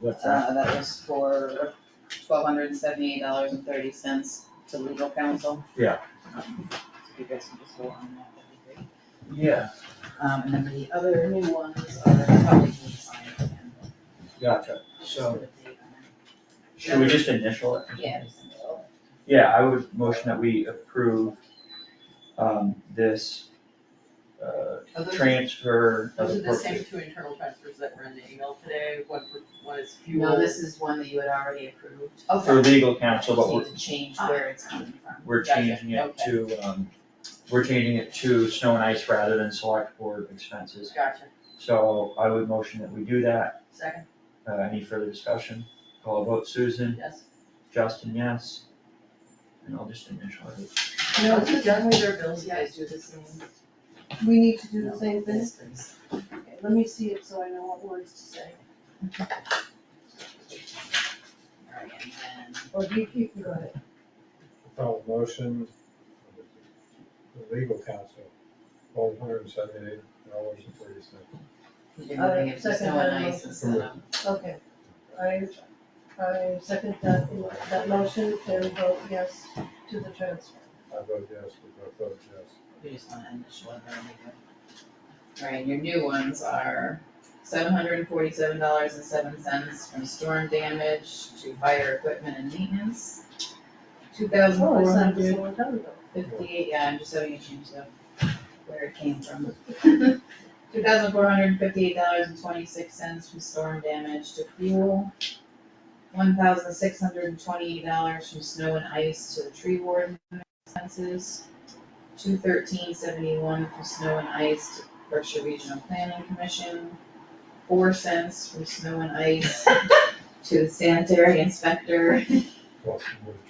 What's that? Uh, that was for twelve hundred and seventy-eight dollars and thirty cents to legal counsel. Yeah. Um, so If you guys can just hold on that, that'd be great. Yeah, Um, and then the other new ones are probably just signed again. gotcha. Just So- put a date on Should we just initial it? it. Yeah, just a little. Yeah, I would motion that we approve, um, this, uh, Are those- transfer of Those are the same appropriate. two internal transfers that were in the email today, one for, one is fuel. No, this is one that you had already approved. Oh, For legal counsel, but You we're, Just need to change where it's coming from. we're Gotcha, changing it to, um, we're changing it to snow and ice rather than select board expenses. Gotcha, So I would motion that we do that. second, Uh, any further discussion? Call a vote, Susan, yes. Justin, yes. And I'll just initial it. No, we done with our bills You guys do the same. We need to do the same thing? Yes, please. Okay, let me see it so I know what words to say. Alright, and then, Or do you keep, you got it? I'll motion, the legal counsel, twelve hundred and seventy-eight dollars and thirty cents. you're moving it to Second snow and amendment. ice instead of. Okay. I, I second that, that motion and vote yes to the transfer. I vote yes, we both vote yes. We just wanna initial it, there we go. Alright, your new ones are seven hundred and forty-seven dollars and seven cents from storm damage to fire equipment and maintenance. Two thousand Oh, four I signed this a hundred long time ago. fifty-eight, yeah, I'm just having you change the, where it came from. Two thousand four hundred and fifty-eight dollars and twenty-six cents from storm damage to fuel. One thousand six hundred and twenty-eight dollars from snow and ice to the tree warden expenses two thirteen seventy-one from Snow and Ice to Berkshire Regional Planning Commission, four cents from Snow and Ice to the sanitary inspector, Plus, we would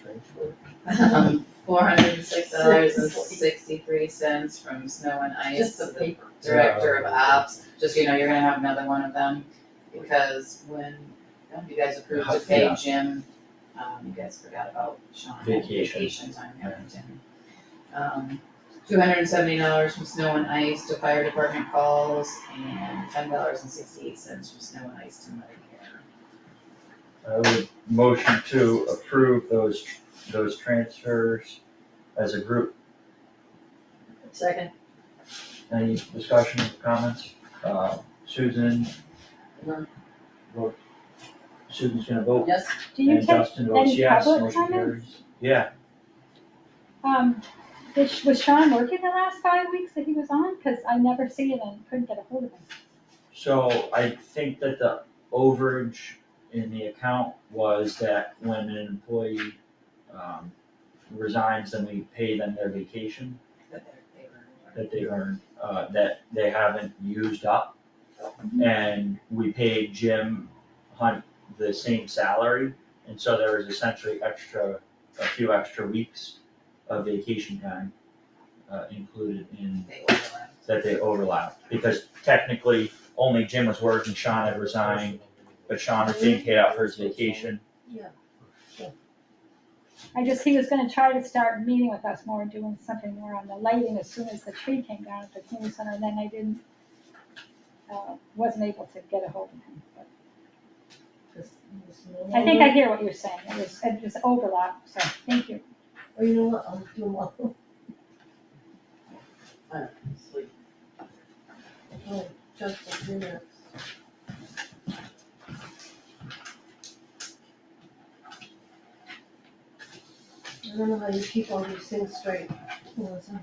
transfer. um, four hundred and six dollars and sixty-three cents from Snow and Ice Just to the the paper. director of ops, just, so you know, you're gonna have another one of them, because when you guys approved to pay Yeah. Jim, um, you guys forgot about Sean. Vacation. Vacation time, yeah, Jim. Um, two hundred and seventy dollars from snow and ice to fire department calls, and ten dollars and sixty-eight cents from snow and ice to mother care. I would motion to approve those, those transfers as a group. Second. Any discussion, comments? Uh, Susan? No. Vote. Susan's gonna vote, Yes, Do you and take, Justin votes any yes, public motion comments? carries. Yeah, um, did Sh- was Sean working the last five weeks that he was on? Cause I never see him and couldn't get a hold of him. so I think that the overage in the account was that when an employee, um, resigns, then we pay them their vacation. But they're, they were. that they earned, uh, that they haven't used up. And we paid Jim Hunt the same salary, and so there was essentially extra, a few extra weeks of vacation time, uh, included in, They overlapped. that they overlapped, because technically, only Jim was working, Sean had resigned, but Sean was being paid out for his vacation. I just, he was gonna try to start meeting with us more, doing something more on the lighting as soon as the tree came down at the community center, and then I didn't, uh, wasn't able to get a hold of him, but. I think I hear what you're saying, it was, it was overlap, so, thank you. Or you know what, I'll do them all. sleep. Oh, Just a few minutes. I don't know how you keep all these things straight, Melissa.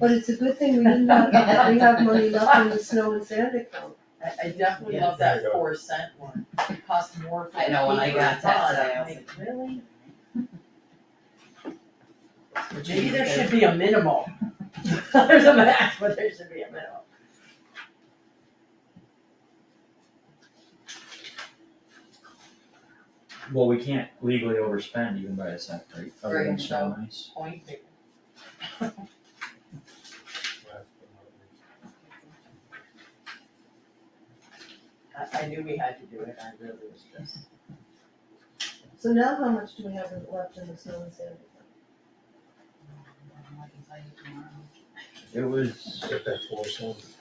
But it's a good thing we didn't have, we have money left in the snow and sand account. I, I definitely love that four cent one, it cost more for the I know, when I paper got that product. today, I I'm was like, like, Really? Maybe there should be a minimal. There's a max, but there should be a minimum. Well, we can't legally overspend even by a cent, right? Other than Right, snow and ice. Point taken. Last but not least. I, I knew we had to do it, I really was just. So now how much do we have left in the snow and sand account? I can tell you tomorrow. It was, Get that four cents.